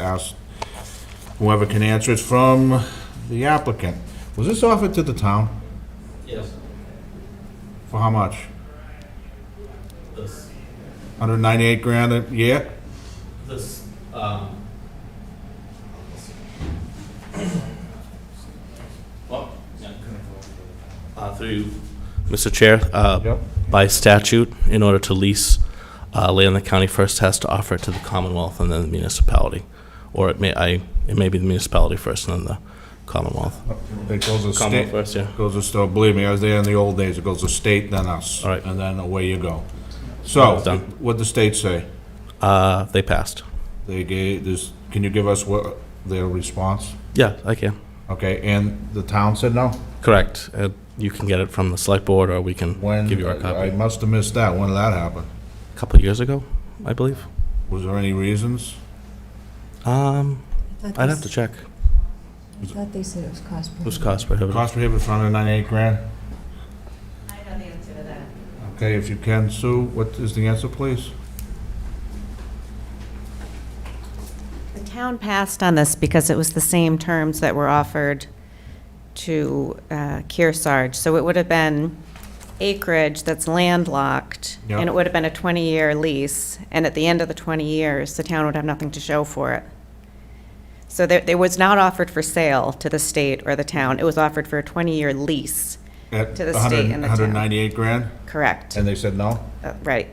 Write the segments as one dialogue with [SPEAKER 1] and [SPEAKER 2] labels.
[SPEAKER 1] ask whoever can answer it from the applicant. Was this offered to the town?
[SPEAKER 2] Yes,
[SPEAKER 1] For how much?
[SPEAKER 2] this,
[SPEAKER 1] 198 grand a year?
[SPEAKER 2] this, um. Well, yeah. Uh, through you, Mr. Chair, uh,
[SPEAKER 1] Yep.
[SPEAKER 2] by statute, in order to lease, uh, land, the county first has to offer it to the Commonwealth and then the municipality. Or it may, I, it may be the municipality first and then the Commonwealth.
[SPEAKER 1] It goes to
[SPEAKER 2] Commonwealth
[SPEAKER 1] state,
[SPEAKER 2] first, yeah.
[SPEAKER 1] goes to, sto- believe me, I was there in the old days, it goes to state, then us.
[SPEAKER 2] All right.
[SPEAKER 1] And then away you go. So,
[SPEAKER 2] Done.
[SPEAKER 1] what'd the state say?
[SPEAKER 2] Uh, they passed.
[SPEAKER 1] They gave, this, can you give us what, their response?
[SPEAKER 2] Yeah, I can.
[SPEAKER 1] Okay, and the town said no?
[SPEAKER 2] Correct. Uh, you can get it from the select board or we can
[SPEAKER 1] When,
[SPEAKER 2] give you our
[SPEAKER 1] I
[SPEAKER 2] copy.
[SPEAKER 1] must have missed that, when did that happen?
[SPEAKER 2] A couple of years ago, I believe.
[SPEAKER 1] Was there any reasons?
[SPEAKER 2] Um,
[SPEAKER 3] Thought
[SPEAKER 2] I'd
[SPEAKER 3] they
[SPEAKER 2] have to
[SPEAKER 3] s-
[SPEAKER 2] check.
[SPEAKER 3] I thought they said it was cost
[SPEAKER 2] It was
[SPEAKER 3] prohibitive.
[SPEAKER 2] cost prohibitive.
[SPEAKER 1] Cost prohibitive for under ninety-eight grand?
[SPEAKER 4] I know the answer to that.
[SPEAKER 1] Okay, if you can, Sue, what is the answer, please?
[SPEAKER 4] The town passed on this because it was the same terms that were offered to uh, Kearsarge. So it would have been acreage that's landlocked,
[SPEAKER 1] Yeah.
[SPEAKER 4] and it would have been a 20-year lease, and at the end of the 20 years, the town would have nothing to show for it. So there, it was not offered for sale to the state or the town. It was offered for a 20-year lease,
[SPEAKER 1] At
[SPEAKER 4] To the state and the town.
[SPEAKER 1] Hundred ninety-eight grand,
[SPEAKER 4] correct?
[SPEAKER 1] and they said no?
[SPEAKER 4] Uh, Right.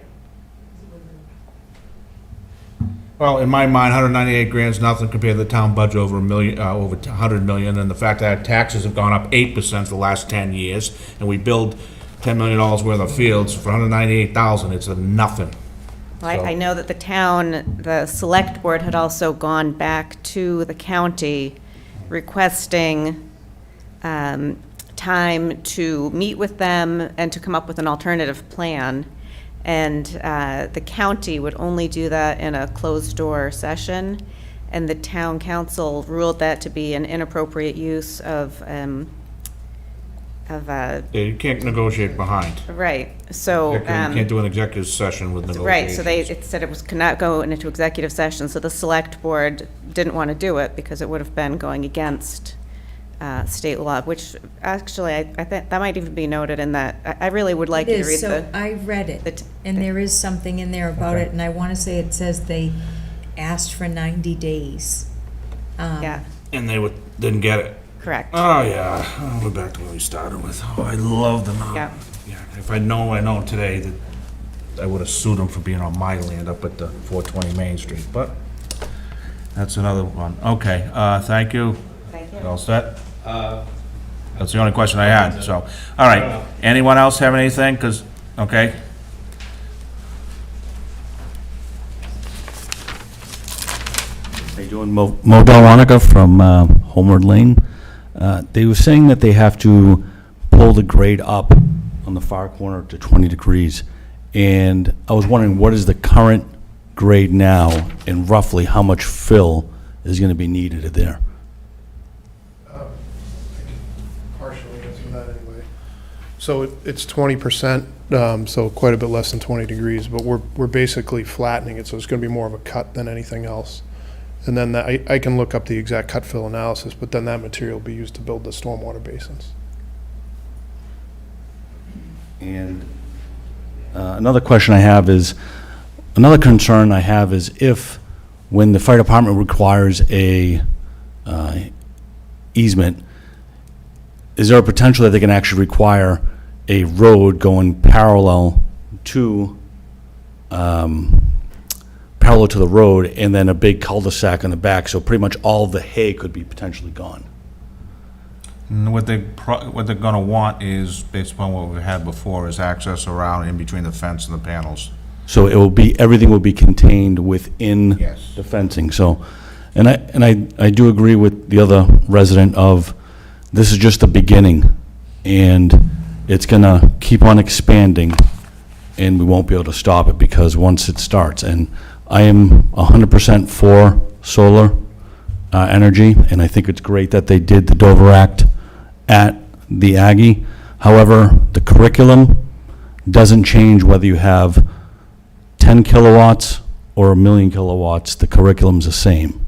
[SPEAKER 1] Well, in my mind, hundred ninety-eight grand's nothing compared to the town budget over a million, uh, over a hundred million, and the fact that taxes have gone up eight percent for the last ten years, and we build ten million dollars worth of fields for hundred ninety-eight thousand, it's a nothing.
[SPEAKER 4] Well, I- I
[SPEAKER 1] So-
[SPEAKER 4] know that the town, the select board had also gone back to the county requesting um, time to meet with them and to come up with an alternative plan. And uh, the county would only do that in a closed-door session. And the town council ruled that to be an inappropriate use of, um, of, uh,
[SPEAKER 1] Yeah, You can't negotiate behind.
[SPEAKER 4] right, so.
[SPEAKER 1] You
[SPEAKER 4] um,
[SPEAKER 1] can't do an executive session with
[SPEAKER 4] Right,
[SPEAKER 1] negotiations.
[SPEAKER 4] so they, it said it was, could not go into executive session, so the select board didn't want to do it because it would have been going against uh, state law, which actually, I, I think, that might even be noted in that, I, I really would like
[SPEAKER 3] It
[SPEAKER 4] you to
[SPEAKER 3] is,
[SPEAKER 4] read
[SPEAKER 3] so
[SPEAKER 4] the,
[SPEAKER 3] I read
[SPEAKER 4] the
[SPEAKER 3] it,
[SPEAKER 4] t-
[SPEAKER 3] and there is something in there about
[SPEAKER 1] Okay.
[SPEAKER 3] it, and I want to say it says they asked for 90 days. Um,
[SPEAKER 4] yeah,
[SPEAKER 1] And they would, didn't get it.
[SPEAKER 4] correct,
[SPEAKER 1] Oh, yeah, oh, we're back to where we started with. Oh, I love them.
[SPEAKER 4] yeah.
[SPEAKER 1] Yeah, if I know, I know today that I would have sued them for being on my land up at the 420 Main Street, but that's another one. Okay, uh, thank you.
[SPEAKER 4] Thank
[SPEAKER 1] You All set? That's the only question I had, so, all right. Anyone else have anything? Because, okay.
[SPEAKER 5] How you doing? Mo Mo Delronica from uh, Homeward Lane. Uh, They were saying that they have to pull the grade up on the far corner to 20 degrees. And I was wondering, what is the current grade now, and roughly how much fill is going to be needed there?
[SPEAKER 6] partially answer that anyway. So it- it's twenty percent, um, so quite a bit less than twenty degrees, but we're, we're basically flattening it, so it's gonna be more of a cut than anything else. And then that- I, I can look up the exact cut fill analysis, but then that material will be used to build the stormwater basins.
[SPEAKER 5] And uh, another question I have is, another concern I have is if, when the fire department requires a uh, easement, is there a potential that they can actually require a road going parallel to, um, parallel to the road and then a big cul-de-sac on the back, so pretty much all the hay could be potentially gone?
[SPEAKER 1] And What they, pro- what they're gonna want is, based upon what we had before, is access around in between the fence and the panels.
[SPEAKER 5] So it will be, everything will be contained within
[SPEAKER 1] Yes.
[SPEAKER 5] the fencing, so, and I, and I, I do agree with the other resident of, this is just the beginning, and it's gonna keep on expanding, and we won't be able to stop it because once it starts, and I am hundred percent for solar, uh, energy, and I think it's great that they did the Dover Act at the Aggie. However, the curriculum doesn't change whether you have 10 kilowatts or a million kilowatts, the curriculum's the same.